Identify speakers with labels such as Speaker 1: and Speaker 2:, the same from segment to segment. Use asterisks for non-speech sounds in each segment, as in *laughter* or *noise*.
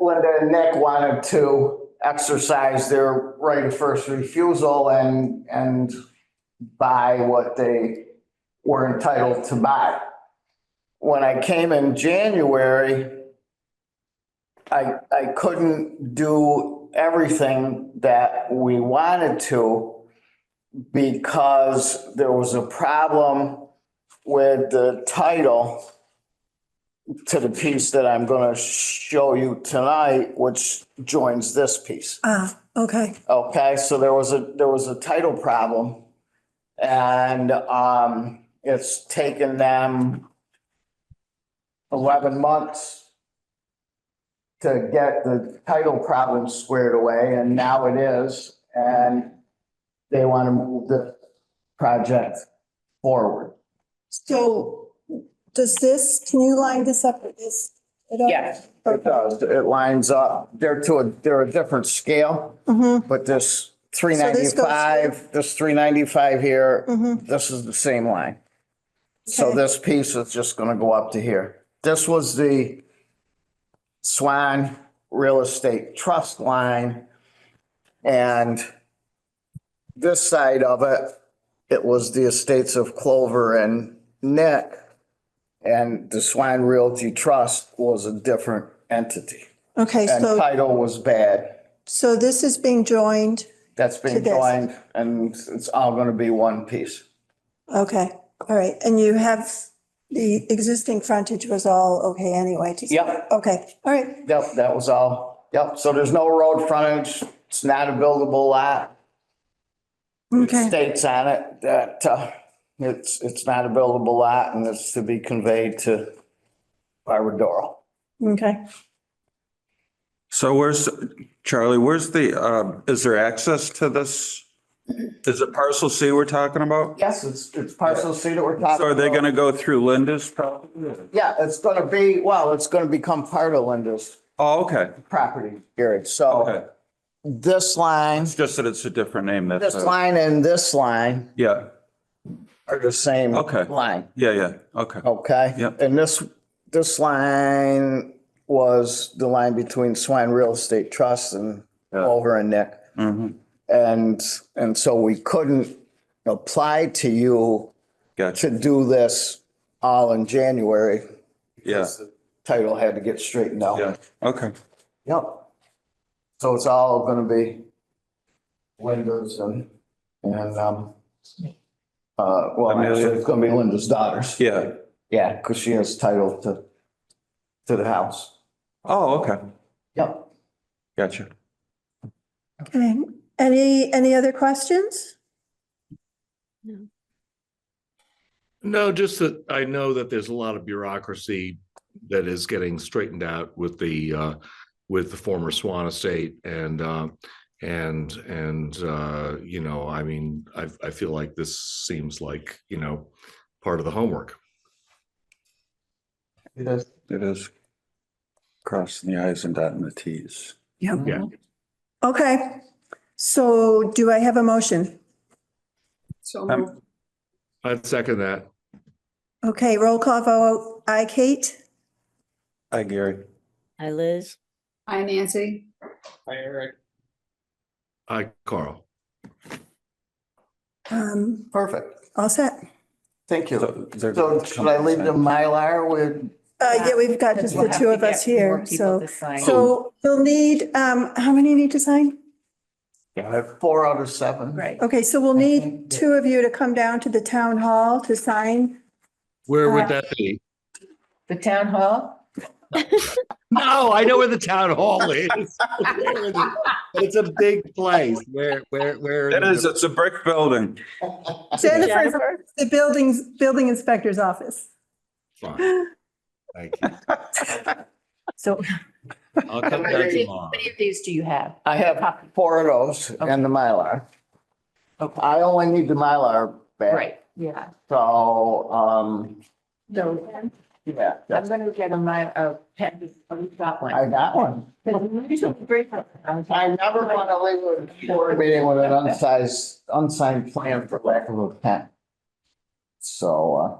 Speaker 1: Linda and Nick E wanted to exercise their right of first refusal and, and buy what they were entitled to buy. When I came in January, I, I couldn't do everything that we wanted to because there was a problem with the title to the piece that I'm going to show you tonight, which joins this piece.
Speaker 2: Ah, okay.
Speaker 1: Okay, so there was a, there was a title problem. And um, it's taken them eleven months to get the title problem squared away, and now it is, and they want to move the project forward.
Speaker 2: So does this, can you line this up with this? at all?
Speaker 3: Yeah.
Speaker 1: It does, it lines up, they're to a, they're a different scale.
Speaker 2: Mhm,
Speaker 1: But this three
Speaker 2: this goes
Speaker 1: ninety-five, this three ninety-five here,
Speaker 2: mhm.
Speaker 1: this is the same line. So
Speaker 2: Okay.
Speaker 1: this piece is just gonna go up to here. This was the Swan Real Estate Trust line. And this side of it, it was the estates of Clover and Nick. And the Swan Realty Trust was a different entity.
Speaker 2: Okay,
Speaker 1: And
Speaker 2: so,
Speaker 1: title was bad.
Speaker 2: so this is being joined.
Speaker 1: That's
Speaker 2: To
Speaker 1: been
Speaker 2: this.
Speaker 1: joined and it's all gonna be one piece.
Speaker 2: Okay, all right. And you have, the existing frontage was all okay anyway. to-
Speaker 1: Yep.
Speaker 2: Okay, all right.
Speaker 1: Yep, that was all. Yep, so there's no road frontage. It's not a buildable lot. It
Speaker 2: Okay,
Speaker 1: States on it that, uh, it's, it's not a buildable lot and it's to be conveyed to Barbara Doral.
Speaker 2: okay.
Speaker 4: So where's, Charlie, where's the, um, is there access to this? Is it parcel C we're talking about?
Speaker 1: Yes, it's, it's parcel C that we're talking about.
Speaker 4: So are they going to go through Linda's property?
Speaker 1: Yeah, it's gonna be, well, it's gonna become part of Linda's
Speaker 4: Oh, okay,
Speaker 1: property, Gary. So
Speaker 4: okay.
Speaker 1: this line,
Speaker 4: It's just that it's a different name, that's,
Speaker 1: this
Speaker 4: all.
Speaker 1: line and this line
Speaker 4: yeah,
Speaker 1: are the same
Speaker 4: Okay.
Speaker 1: line.
Speaker 4: yeah, yeah, okay.
Speaker 1: Okay.
Speaker 4: Yep.
Speaker 1: And this, this line was the line between Swine Real Estate Trust and
Speaker 4: Yeah.
Speaker 1: Culver and Nick.
Speaker 4: Mhm.
Speaker 1: And, and so we couldn't apply to you to
Speaker 4: Gotcha,
Speaker 1: do this all in January.
Speaker 4: yeah,
Speaker 1: because the Title had to get straightened out.
Speaker 4: yeah, okay.
Speaker 1: Yep. So it's all gonna be Linda's and, and, um, uh, well, actually,
Speaker 4: Amelia.
Speaker 1: it's gonna be Linda's daughters.
Speaker 4: Yeah,
Speaker 1: Yeah, because she has title to, to the house.
Speaker 4: oh, okay,
Speaker 1: Yep.
Speaker 4: gotcha.
Speaker 2: Okay, any, any other questions?
Speaker 5: No, just that I know that there's a lot of bureaucracy that is getting straightened out with the uh with the former Swan Estate and uh and and uh you know, I mean, I I feel like this seems like, you know, part of the homework.
Speaker 1: It is.
Speaker 4: It is crossing the i's and dotting the t's.
Speaker 5: Yeah.
Speaker 2: Okay, so do I have a motion?
Speaker 4: Um,
Speaker 5: I'd second that.
Speaker 2: Okay, roll call vote. I, Kate?
Speaker 4: Hi, Gary.
Speaker 3: Hi, Liz.
Speaker 6: Hi, Nancy.
Speaker 5: I, Carl.
Speaker 2: Um,
Speaker 1: Perfect.
Speaker 2: all set?
Speaker 1: Thank you.
Speaker 4: So they're-
Speaker 1: So should I leave the Mylar with,
Speaker 2: Uh, yeah, we've got just the two of us here, so. So you'll need, um, how many need to sign?
Speaker 1: four out of seven?
Speaker 3: Right.
Speaker 2: Okay, so we'll need two of you to come down to the town hall to *laughs* sign.
Speaker 5: Where
Speaker 2: Uh,
Speaker 5: would that be?
Speaker 3: The town hall?
Speaker 5: No, I know where the town hall is. It's a big place. Where where where?
Speaker 4: It is, it's a brick building.
Speaker 2: Jennifer, the buildings, building inspector's office.
Speaker 5: Fine. Thank you.
Speaker 3: So
Speaker 5: I'll
Speaker 3: how
Speaker 5: come down
Speaker 3: many
Speaker 5: tomorrow.
Speaker 3: of these do you have?
Speaker 1: I have four of those and the Mylar. I only need the Mylar back.
Speaker 3: Right, yeah.
Speaker 1: So, um,
Speaker 3: So
Speaker 1: yeah,
Speaker 3: I'm
Speaker 1: that's-
Speaker 3: going to get a my, a pen, I've got one.
Speaker 1: I got one.
Speaker 3: Because we usually bring them.
Speaker 1: I never want to leave a board meeting with an unsized, unsigned plan for lack of a pen. So, uh.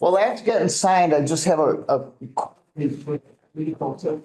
Speaker 1: Well, that's getting signed. I just have a, a.